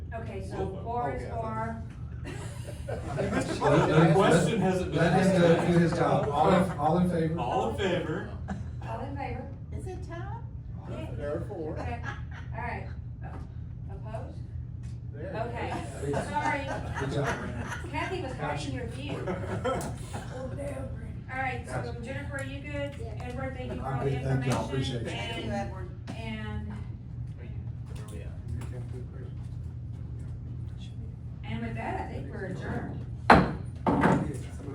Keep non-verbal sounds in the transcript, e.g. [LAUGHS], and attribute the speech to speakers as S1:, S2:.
S1: Okay, so four is four.
S2: The question hasn't been.
S3: Let him
S2: asked.
S3: do his job. All, in- all in favor?
S2: All in favor?
S1: All in favor?
S4: Is it time?
S5: There are four.
S1: Okay, all right. Opposed?
S5: There.
S1: Okay,
S3: Please.
S1: sorry.
S3: Good job, Brandon.
S1: Kathy was hiding your view.
S2: [LAUGHS]
S1: All right, so
S3: Gotcha.
S1: Jennifer, are you good?
S4: Yeah.
S1: Edward, thank you for
S3: I'm
S1: all the
S3: good, thank
S1: information.
S3: y'all. Appreciate it.
S4: Thank you,
S1: And,
S4: Edward.
S1: and,
S5: Yeah.
S1: and with that, I think we're adjourned.